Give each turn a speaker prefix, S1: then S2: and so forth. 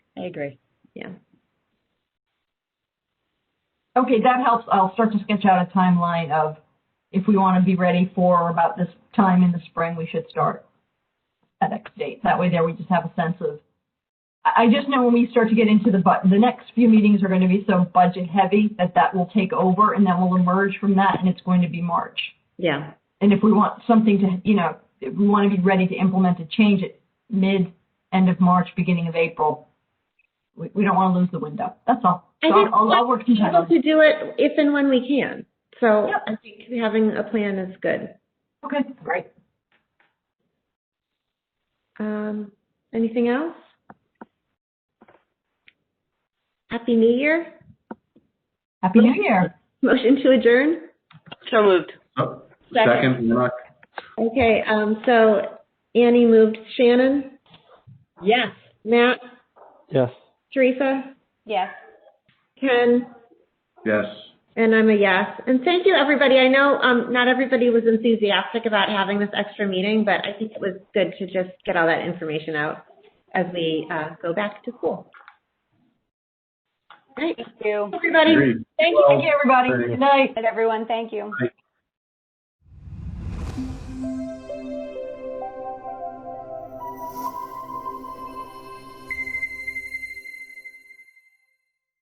S1: I agree.
S2: Yeah.
S3: Okay, that helps. I'll start to sketch out a timeline of if we want to be ready for about this time in the spring, we should start at X date. That way there we just have a sense of, I, I just know when we start to get into the but the next few meetings are going to be so budget heavy that that will take over and then we'll emerge from that and it's going to be March.
S2: Yeah.
S3: And if we want something to, you know, if we want to be ready to implement a change at mid, end of March, beginning of April, we, we don't want to lose the window. That's all.
S2: I
S3: So
S2: think
S3: I'll, I'll, I'll work some
S2: Be
S3: time.
S2: able to do it if and when we can. So
S3: Yep.
S2: I think having a plan is good.
S3: Okay, great.
S2: Um, anything else? Happy New Year.
S3: Happy New Year.
S2: Motion to adjourn.
S4: So moved.
S5: Oh,
S2: Second.
S5: Second, Warnock.
S2: Okay, um, so Annie moved. Shannon,
S1: Yes.
S2: Matt,
S6: Yes.
S2: Teresa,
S4: Yes.
S2: Ken,
S5: yes.
S2: and I'm a yes. And thank you, everybody. I know, um, not everybody was enthusiastic about having this extra meeting, but I think it was good to just get all that information out as we, uh, go back to school. All right,
S4: Thank you.
S2: everybody.
S5: Agreed.
S3: Thank you, thank you, everybody.
S5: Thank you.
S3: Good night.
S4: And everyone, thank you.
S5: Thank